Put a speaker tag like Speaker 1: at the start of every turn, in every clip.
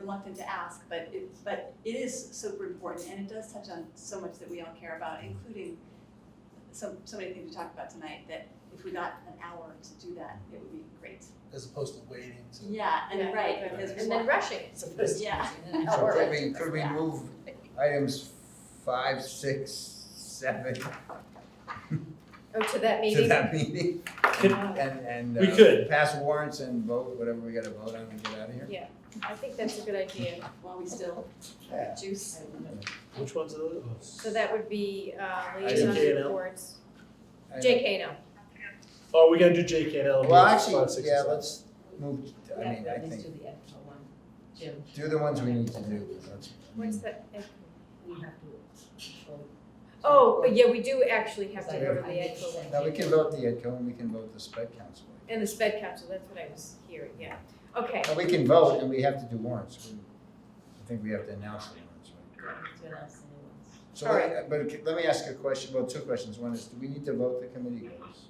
Speaker 1: reluctant to ask, but it, but it is super important, and it does touch on so much that we all care about, including so, so many things we talked about tonight, that if we got an hour to do that, it would be great.
Speaker 2: as opposed to waiting to.
Speaker 1: Yeah,
Speaker 3: Yeah.
Speaker 1: and right, because we
Speaker 3: And then
Speaker 1: want-
Speaker 3: rushing.
Speaker 1: Yeah.
Speaker 3: Oh,
Speaker 4: So
Speaker 3: or-
Speaker 4: could we, could we move items five, six, seven
Speaker 3: Oh, to that
Speaker 4: to
Speaker 3: meeting?
Speaker 4: that meeting?
Speaker 5: Could-
Speaker 4: And, and.
Speaker 5: We
Speaker 4: uh,
Speaker 5: could.
Speaker 4: Pass warrants and vote, whatever we gotta vote on and get out of here.
Speaker 3: I think that's a good idea.
Speaker 1: while we still
Speaker 4: Yeah.
Speaker 1: juice.
Speaker 5: Which ones are those?
Speaker 3: So that would be uh,
Speaker 4: Item
Speaker 3: liaison
Speaker 5: J and L.
Speaker 3: reports.
Speaker 4: I-
Speaker 3: JK now.
Speaker 5: Oh, we gotta do J K and L.
Speaker 4: Well,
Speaker 5: five, six,
Speaker 4: actually,
Speaker 5: and
Speaker 4: yeah,
Speaker 5: seven.
Speaker 4: let's move, I mean, I
Speaker 6: Let's
Speaker 4: think,
Speaker 6: do the ethical one, Jim.
Speaker 4: do the ones we need to do, that's.
Speaker 3: What's that?
Speaker 4: Mm-hmm.
Speaker 6: We have to vote.
Speaker 3: Oh, but yeah, we do actually have to go to the EdCo one.
Speaker 4: Now, we can vote the EdCo and we can vote the spec council.
Speaker 3: And the sped council, that's what I was hearing, yeah. Okay,
Speaker 4: Now, we can vote and we have to do warrants. We- I think we have to announce the warrants, right?
Speaker 6: To announce the new ones.
Speaker 4: So,
Speaker 3: All
Speaker 4: let- but c- let me ask you a question, well, two questions. One is, do we need to vote the committee goals?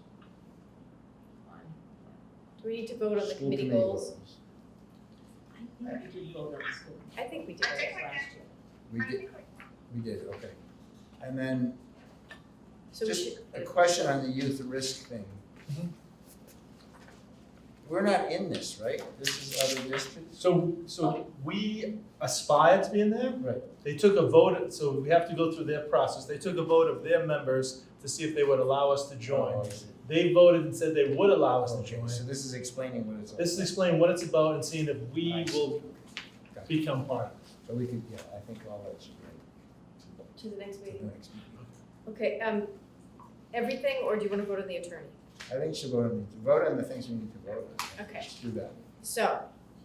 Speaker 3: do we need to vote on the
Speaker 4: School
Speaker 3: committee goals?
Speaker 6: I think we did vote on the school
Speaker 3: I think we did.
Speaker 6: last year.
Speaker 4: We did, we did, okay. And then,
Speaker 3: So we
Speaker 4: just
Speaker 3: should,
Speaker 4: a question on the youth risk thing.
Speaker 5: Mhm.
Speaker 4: We're not in this, right? This is other districts?
Speaker 5: So, so we aspire to be in there.
Speaker 4: Right.
Speaker 5: They took a vote, so we have to go through their process. They took a vote of their members to see if they would allow us to
Speaker 4: Oh,
Speaker 5: join.
Speaker 4: I see.
Speaker 5: They voted and said they would allow us to
Speaker 4: Okay,
Speaker 5: join.
Speaker 4: so this is explaining what it's all about.
Speaker 5: This is explaining what it's about and seeing if we
Speaker 4: I see.
Speaker 5: will
Speaker 4: Gotcha.
Speaker 5: become part.
Speaker 4: So we could, yeah, I think all that should be
Speaker 3: to the next
Speaker 4: to the
Speaker 3: meeting.
Speaker 4: next meeting.
Speaker 3: Okay, um, everything, or do you wanna go to the attorney?
Speaker 4: I think should vote on, the- vote on the things we need to vote on.
Speaker 3: Okay.
Speaker 4: Just do that.
Speaker 3: So,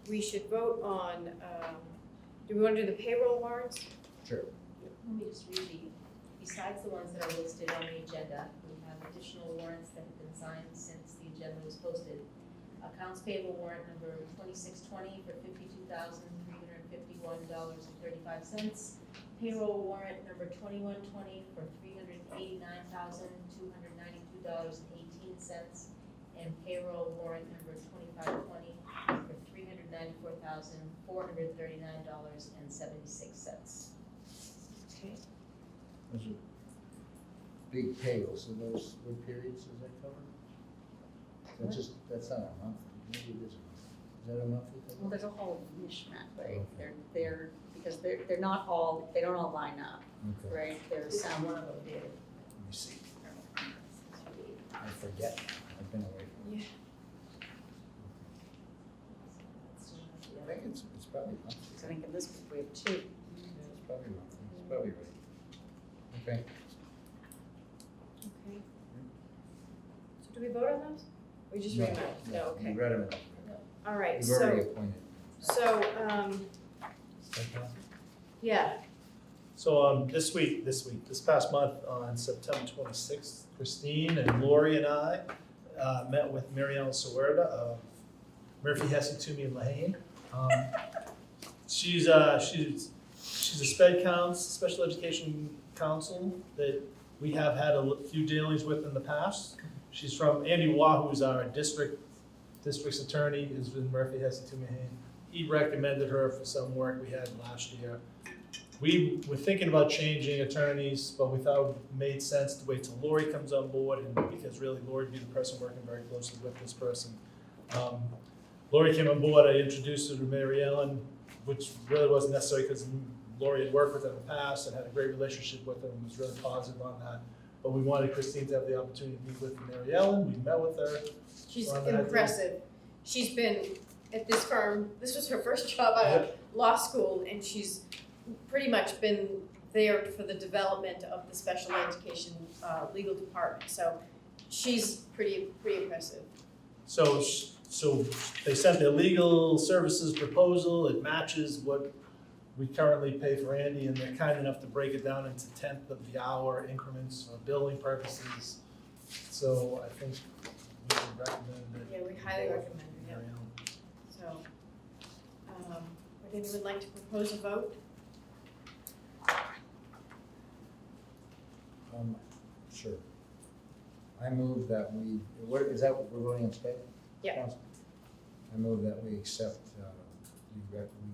Speaker 3: we should vote on, um, do we wanna do the payroll warrants?
Speaker 4: Sure.
Speaker 6: Let me just read the, besides the ones that are listed on the agenda, we have additional warrants that have been signed since the agenda was posted. Accounts payable warrant number twenty-six twenty for fifty-two thousand three hundred and fifty-one dollars and thirty-five cents. Payroll warrant number twenty-one twenty for three hundred and eighty-nine thousand two hundred and ninety-two dollars and eighteen cents. And payroll warrant number twenty-five twenty for three hundred and ninety-four thousand four hundred and thirty-nine dollars and seventy-six cents.
Speaker 3: Okay.
Speaker 4: Those are Big payrolls, so those, what periods does that cover? That's just, that's not a month, maybe it is a month. Is that a monthly
Speaker 7: Well,
Speaker 4: thing?
Speaker 7: there's a whole mishmash, right? They're, they're, because they're, they're not all, they don't all line up,
Speaker 4: Okay, let
Speaker 7: right? There's some,
Speaker 6: one of them did.
Speaker 4: me see. I forget, I've been away from it. I think it's, it's probably monthly,
Speaker 7: I think in this group we have two.
Speaker 4: it's probably monthly, it's probably right. Okay,
Speaker 3: Okay. So do we vote on those? We just
Speaker 4: No,
Speaker 3: read them? out? No,
Speaker 4: you
Speaker 3: okay.
Speaker 4: read them,
Speaker 3: All right,
Speaker 4: you've already
Speaker 3: so,
Speaker 4: appointed.
Speaker 3: so, um, yeah,
Speaker 5: So um, this week, this week, this past month, on September 26th, Christine and Lori and I uh, met with Mary Ellen Sawerda of Murphy Hesse Toomey and Lehane. Um, she's uh, she's she's a sped counts special education counsel that we have had a l- few dealings with in the past. She's from Andy Waugh, who's our district district's attorney, is with Murphy Hesse Toomey and Lehane. He recommended her for some work we had last year. We were thinking about changing attorneys, but we thought it made sense to wait till Lori comes on board and because really Lori would be the person working very closely with this person. Um, Lori came on board, I introduced her to Mary Ellen, which really wasn't necessary because Lori had worked with her in the past and had a great relationship with her and was really positive on that. But we wanted Christine to have the opportunity to meet with Mary Ellen, we met with her.
Speaker 3: she's
Speaker 5: Well, that-
Speaker 3: impressive. She's been at this firm, this was her first job out of law school, and she's pretty much been there for the development of the special education, uh, legal department, so she's pretty, pretty impressive.
Speaker 5: So, sh- so they sent their legal services proposal, it matches what we currently pay for Andy, and they're kind enough to break it down into tenth of the hour increments for billing purposes. So I think we would recommend
Speaker 3: Yeah,
Speaker 5: it.
Speaker 3: we highly recommend her, yeah. So, um, would anyone like to propose a vote?
Speaker 4: Um, sure. I move that we, what, is that what we're voting on today?
Speaker 3: Yeah.
Speaker 4: Council? I move that we accept, uh, the rec, we